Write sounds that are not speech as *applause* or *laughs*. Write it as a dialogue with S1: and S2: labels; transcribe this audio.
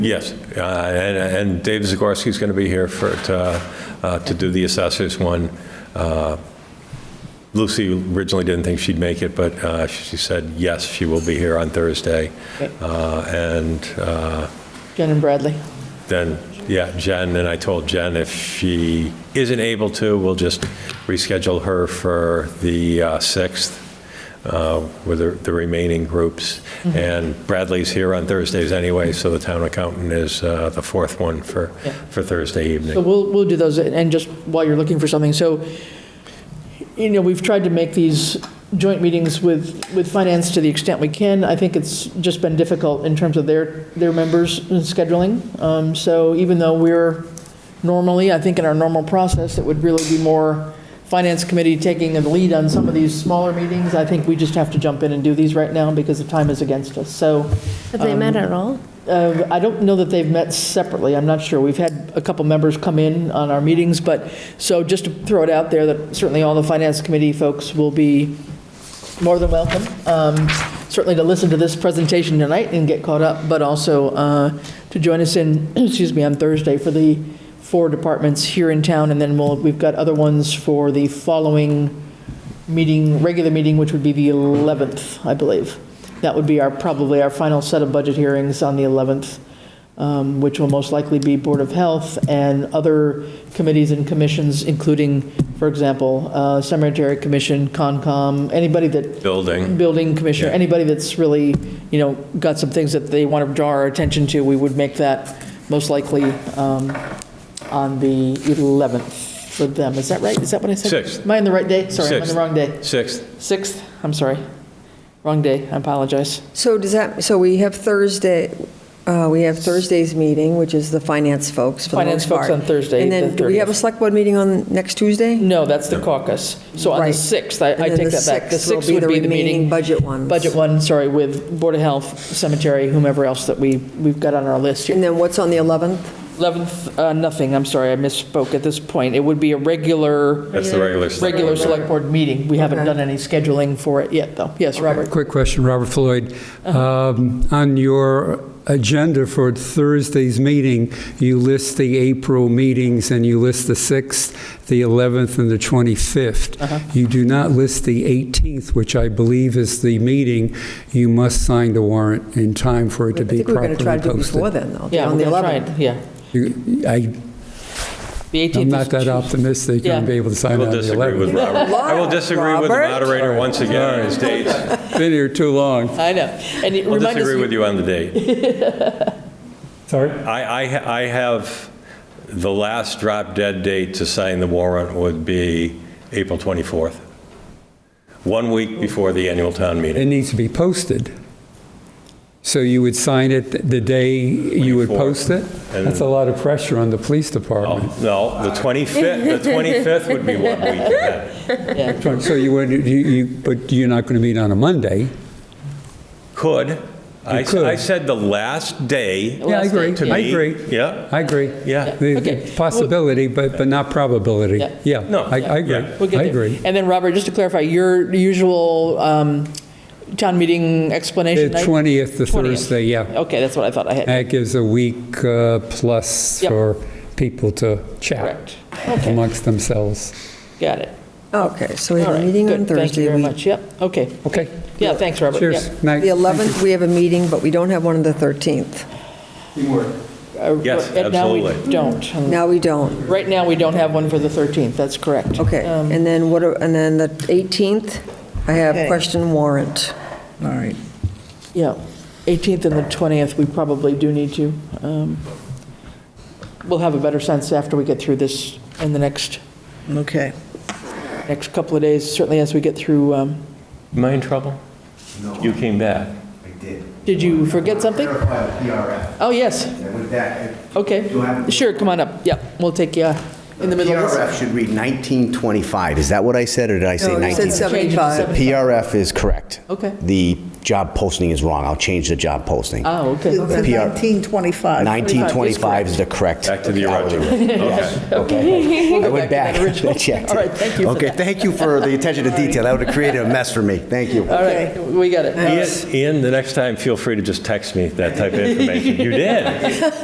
S1: Yes, uh, and and Dave Zagorski's going to be here for, to uh, to do the assessors one. Uh, Lucy originally didn't think she'd make it, but uh, she said, yes, she will be here on Thursday. Uh, And uh,
S2: Jen and Bradley.
S1: then, yeah, Jen, and I told Jen if she isn't able to, we'll just reschedule her for the uh, 6th uh, with the- the remaining groups. And Bradley's here on Thursdays anyway, so the town accountant is uh, the fourth one for,
S2: Yeah.
S1: for Thursday
S2: So
S1: evening.
S2: we'll, we'll do those, and just while you're looking for something, so, you know, we've tried to make these joint meetings with, with finance to the extent we can. I think it's just been difficult in terms of their, their members and scheduling. Um, So even though we're normally, I think in our normal process, it would really be more finance committee taking the lead on some of these smaller meetings. I think we just have to jump in and do these right now because the time is against us. So
S3: Have they met at all?
S2: Uh, I don't know that they've met separately, I'm not sure. We've had a couple members come in on our meetings, but, so just to throw it out there, that certainly all the Finance Committee folks will be more than welcome, um, certainly to listen to this presentation tonight and get caught up, but also uh, to join us in, *clears throat* excuse me, on Thursday for the four departments here in town, and then we'll, we've got other ones for the following meeting, regular meeting, which would be the 11th, I believe. That would be our, probably our final set of budget hearings on the 11th, um, which will most likely be Board of Health and other committees and commissions, including, for example, uh, Cemetery Commission, Concom, anybody that,
S1: Building.
S2: Building Commissioner,
S1: Yeah.
S2: anybody that's really, you know, got some things that they want to draw our attention to, we would make that most likely um, on the 11th for them. Is that right? Is that what I said?
S1: Sixth.
S2: Am I on the right day? Sorry, I'm on the
S1: Sixth.
S2: wrong day.
S1: 6th,
S2: 6th, I'm sorry. Wrong day, I apologize.
S4: So does that, so we have Thursday, uh, we have Thursday's meeting, which is the finance folks for the
S2: Finance
S4: most
S2: folks on
S4: part.
S2: Thursday,
S4: And
S2: the
S4: then, do we have a
S2: 30th.
S4: select board meeting on next Tuesday?
S2: No, that's the caucus. So on the
S4: Right.
S2: 6th, I- I
S4: And then
S2: take
S4: the
S2: that back. The
S4: 6th will
S2: 6th
S4: be
S2: would
S4: the
S2: be the
S4: remaining
S2: meeting.
S4: budget ones.
S2: Budget one, sorry, with Board of Health, Cemetery, whomever else that we, we've got on our list here.
S4: And then what's on the 11th?
S2: 11th, uh, nothing, I'm sorry, I misspoke at this point. It would be a regular,
S1: that's the regular. select
S2: regular
S1: board.
S2: select board meeting. We haven't
S4: Okay.
S2: done any scheduling for it yet, though. Yes, Robert?
S5: Quick question, Robert Floyd. Um, On your agenda for Thursday's meeting, you list the April meetings, and you list the 6th, the 11th, and the
S4: Uh-huh.
S5: 25th. You do not list the 18th, which I believe is the meeting. You must sign the warrant in time for it
S4: I
S5: to be
S4: think we're going
S5: properly
S4: to try to do it before
S5: posted.
S4: then, though.
S2: Yeah,
S4: on
S2: we're
S4: the
S2: gonna try
S4: 11th.
S2: it, yeah.
S5: You- I-
S2: The 18th
S5: I'm
S2: is
S5: not
S4: *laughs*
S5: that
S2: Tuesday.
S5: optimistic you're going
S2: Yeah.
S5: to be able to
S1: I
S5: sign
S1: will
S5: on the
S1: disagree with
S5: 11th.
S1: Robert. I will disagree with the
S4: Robert?
S1: moderator once again on his dates.
S5: Been here too long.
S2: I know. And it
S1: I'll
S2: remind us,
S1: disagree with you on the date. *laughs*
S5: Sorry?
S1: I, I, ha- I have, the last drop dead date to sign the warrant would be April 24th, one week before the annual town meeting.
S5: It needs to be posted. So you would sign it the day you would
S1: 24.
S5: post it?
S1: And-
S5: That's a lot of pressure on the police
S1: Oh,
S5: department.
S1: No, the 25th, the *laughs* 25th would be one *laughs* week ahead. Oh.
S5: So you would, you- you, but you're not going to meet on a Monday?
S1: Could. I s-
S5: could.
S1: I said the last day.
S5: Yeah, I agree,
S1: To
S5: I
S1: me,
S5: agree,
S1: Yeah,
S5: I agree.
S1: Yeah.
S5: The- the
S2: Okay.
S5: Possibility, but, but not probability.
S2: Yeah.
S5: Yeah,
S1: No,
S5: I, I agree,
S1: yeah.
S2: We'll get
S5: I
S2: there.
S5: agree.
S2: And then, Robert, just to clarify, your usual um, town meeting
S5: The
S2: explanation night?
S5: 20th, the
S2: 20th.
S5: Thursday, yeah.
S2: Okay, that's what I thought I had.
S5: That gives a week uh, plus
S2: Yep.
S5: for people to chat
S2: Correct.
S5: amongst themselves.
S2: Got it.
S4: Okay, so we
S2: All
S4: have a
S2: right,
S4: meeting on
S2: good. Thank you
S4: Thursday.
S2: very
S4: We-
S2: much. Yep, okay.
S5: Okay?
S2: Yeah, thanks, Robert.
S5: Cheers.
S2: Yep.
S5: Night.
S4: The
S5: Thank you.
S4: 11th, we have a meeting, but we don't have one on the 13th.
S2: Uh,
S1: Yes,
S2: and Now we
S1: absolutely.
S2: don't. Um,
S4: Now we don't.
S2: Right now, we don't have one for the 13th, that's correct.
S4: Okay,
S2: Um,
S4: and then what, are- and then the 18th, I have
S2: Okay.
S4: question warrant.
S6: All right.
S2: Yeah, 18th and the 20th, we probably do need to. um, We'll have a better sense after we get through this in the next,
S6: Okay.
S2: next couple of days, certainly as we get through. um,
S1: Am I in trouble? No. You came back.
S7: I did.
S2: Did you forget something?
S7: Verify the PRF.
S2: Oh, yes,
S7: And with that, I-
S3: uh,
S2: okay.
S7: Do I have-
S2: Sure, come on up. Yep, we'll take you. in the middle of this.
S3: PRF should read 1925. Is that what I said, or did I say
S4: No, you
S3: 19?
S4: said
S2: Change it to
S4: 75.
S3: PRF is correct.
S2: Okay.
S3: The job posting is wrong. I'll change the job posting.
S2: Oh,
S3: *laughs*
S2: okay.
S6: It's a
S3: PR.
S6: 1925.
S3: 1925 is the correct.
S1: Back to the
S3: hourly rate.
S1: original. Okay.
S3: Yes, Okay. I went
S2: back
S3: back. *laughs*
S2: to that original.
S3: I checked
S2: All
S3: it.
S2: right, thank you for
S3: Okay,
S2: that.
S3: thank you for the attention to detail. That would have created a mess for me. Thank you.
S2: All right, we got it.
S1: Ian, Ian, the next time, feel free to just text me that type of information. You did.